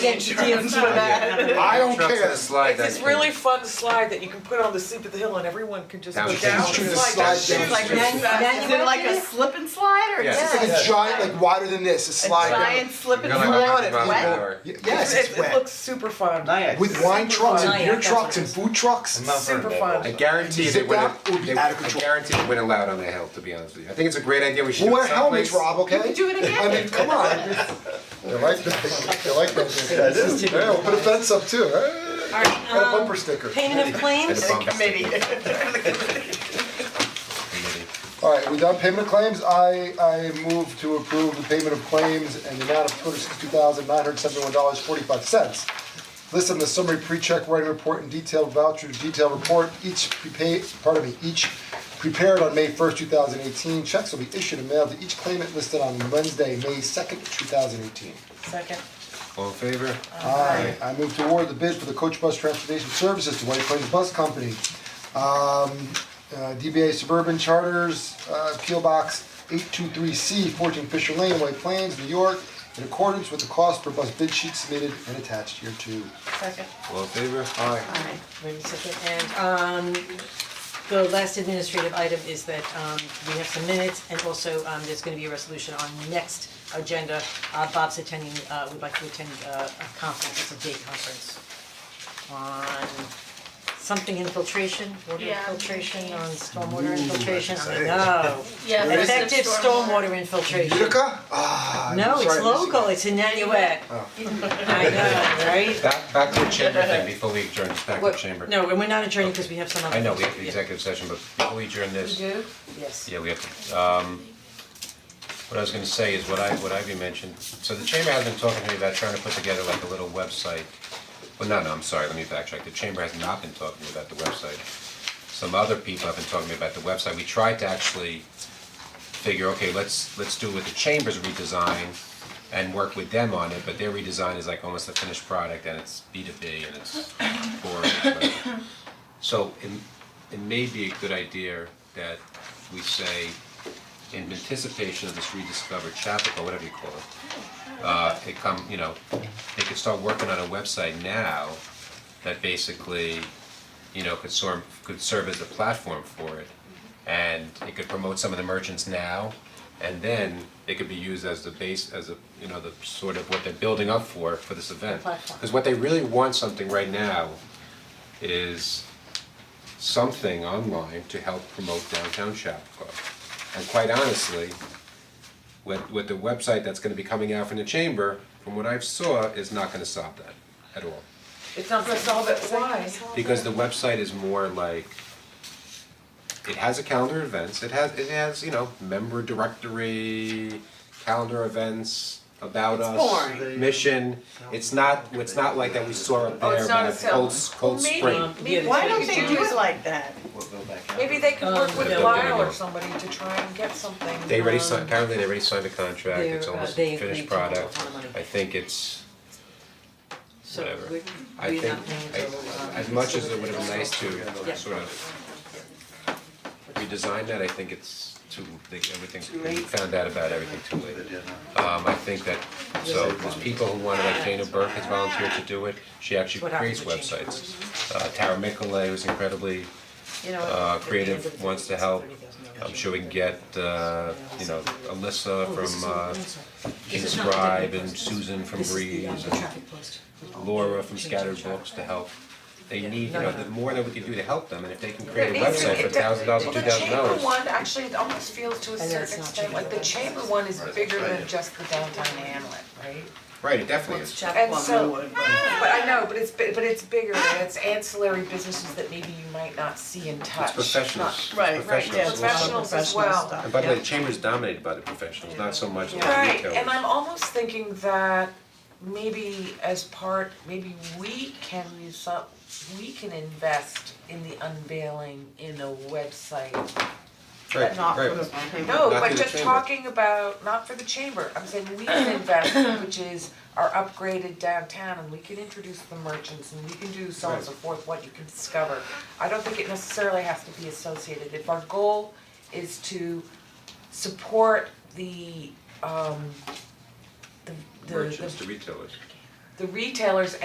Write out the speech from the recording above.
insurance. for that. I don't Trucks care. and a slide It's this that- really fun slide that you can put on the seat of the hill and everyone can just go down. Down. Just do the It's slide like- down. Like It's manu- Exactly. manual. Is it like a slip and slide or Yes. just It's like a giant, like wider than this, a a slide. giant slip You're and gonna You want like slide? have it, to run wet? an hour. Y- Yes, It, it's it wet. looks super fun. Nice. With wine trucks and Nice. beer trucks and food trucks. Super fun. I guarantee they Zip would up would have, be they, out of I control. guarantee they would have allowed on the hill, to be honest with you. I think it's a great idea, we should We'll do wear it helmets, someplace. Rob, okay? You can do it again. I mean, come on, They like those, they like those. That is Yeah, we'll put a fence up too, eh? Alright, And a um, bumper sticker. payment of claims? And a bump. Committee. Alright, we done payment of claims, I, I move to approve the payment of claims and the amount of two hundred sixty-two thousand nine hundred seventy-one dollars forty-five cents. List in the summary pre-check writing report and detailed voucher detailed report, each prepaid, pardon me, each prepared on May first, two thousand eighteen. Checks will be issued and mailed to each claimant listed on Wednesday, May second, two thousand eighteen. Second. All in favor? Uh, Aye. I move to award the bid for the coach bus transportation services to White Plains Bus Company. Um, uh, DBA Suburban Charters, uh, P O Box eight two three C, fourteen Fisher Lane, White Plains, New York, in accordance with the cost per bus bid sheet submitted and attached here too. Second. All in favor? Aye. Alright, maybe second, and um the last administrative item is that um we have some minutes and also um there's gonna be a resolution on next agenda. Uh Bob's attending, uh would like to attend uh a conference, it's a day conference on something infiltration, water Yeah, I'm infiltration, thinking. on stormwater infiltration, I know. Yeah, Effective stormwater infiltration. Utica? Ah, No, sorry, I it's didn't see Oh. local, it's in Nanuet. I know, right? Back, back to the chamber thing before we adjourn, just back to the What- chamber. Oh. No, and we're not adjourning because we have some other. I know, we have the things. executive session, but before we adjourn this, Do? Yes. Yeah, we have, to, um, what I was gonna say is what I, what Ivy mentioned, so the chamber has been talking to me about trying to put together like a little website. Well, no, no, I'm sorry, let me backtrack, the chamber has not been talking to me about the website. Some other people have been talking to me about the website, we tried to actually figure, okay, let's, let's do what the chamber's redesign and work with them on it, but their redesign is like almost a finished product and it's B two B and it's boring, whatever. So it it may be a good idea that we say in anticipation of this rediscovered Chapel, whatever you call it. Uh it come, you know, they could start working on a website now that basically, you know, could sort could serve as a platform for it. And it could promote some of the merchants now and then it could be used as the base, as a, you know, the sort of what they're building up for for this event. Platform. Cause what they really want something right now is something online to help promote downtown Chapacua. And quite honestly, with with the website that's gonna be coming out from the chamber, from what I've saw, is not gonna solve that at all. It's not gonna solve it, why? Because the website is more like, it has a calendar of events, it has, it has, you know, member directory, calendar events, about us, boring. mission. It's not, it's not like that we saw up there it's not about a cell. Cold, Cold Spring. Yeah, Why that's don't what they we do it like that? Maybe they could work with Um, Lyle or somebody to try and get something. They already signed, apparently they already signed a contract, it's They're, uh, almost they a finished agreed to a lot product. of money. I think it's, So whatever. we're, I we're think, not paying I- until, um, as much as so it would have been nice Yeah. to sort of redesign that, I think it's too, they- everything's, we found out about everything too late. Um, I think that, so there's people who wanna, like Dana Burke has volunteered to do it, she actually What happens creates when she websites. Uh, Tara Mickelay, who's incredibly You know, uh, at the end of creative the wants to day, it's help. $30,000. I'm sure we can get, uh, you know, Alyssa Oh, this is from all- uh, I'm sorry. This King's is not the Scribe deadline and post. Susan from This is the, um, Breeze the and traffic post. Laura from Change Scattered the traffic. Books to help. They need, you No, know, no. the more that we can do to help them, and if they can create a There needs to- website for it- there- thousand dollars, two The thousand chamber dollars. one, actually, it almost feels to a And certain it's not extent, like the chamber one is bigger than just the downtown hamlet, right? Right, it definitely is. And so, but I know, but it's, bi- but it's bigger, and it's ancillary businesses that maybe you might not see and touch. It's professionals, it's Right, right, yeah, professionals. it's a lot of Professionals as professional well. stuff. And by the way, the chamber's dominated by the professionals, not so much the Right, retailers. and I'm almost thinking that maybe as part, maybe we can use some, we can invest in the unveiling in a website. Right, Not for right. the people. No, Not but through the just chamber. talking about, not for the chamber, I'm saying we can invest, which is our upgraded downtown and we can introduce the merchants and we can do so on and so forth, what you can discover. I don't think it necessarily has to be associated, if our goal is to support the um the the Merchants the to retailers. the retailers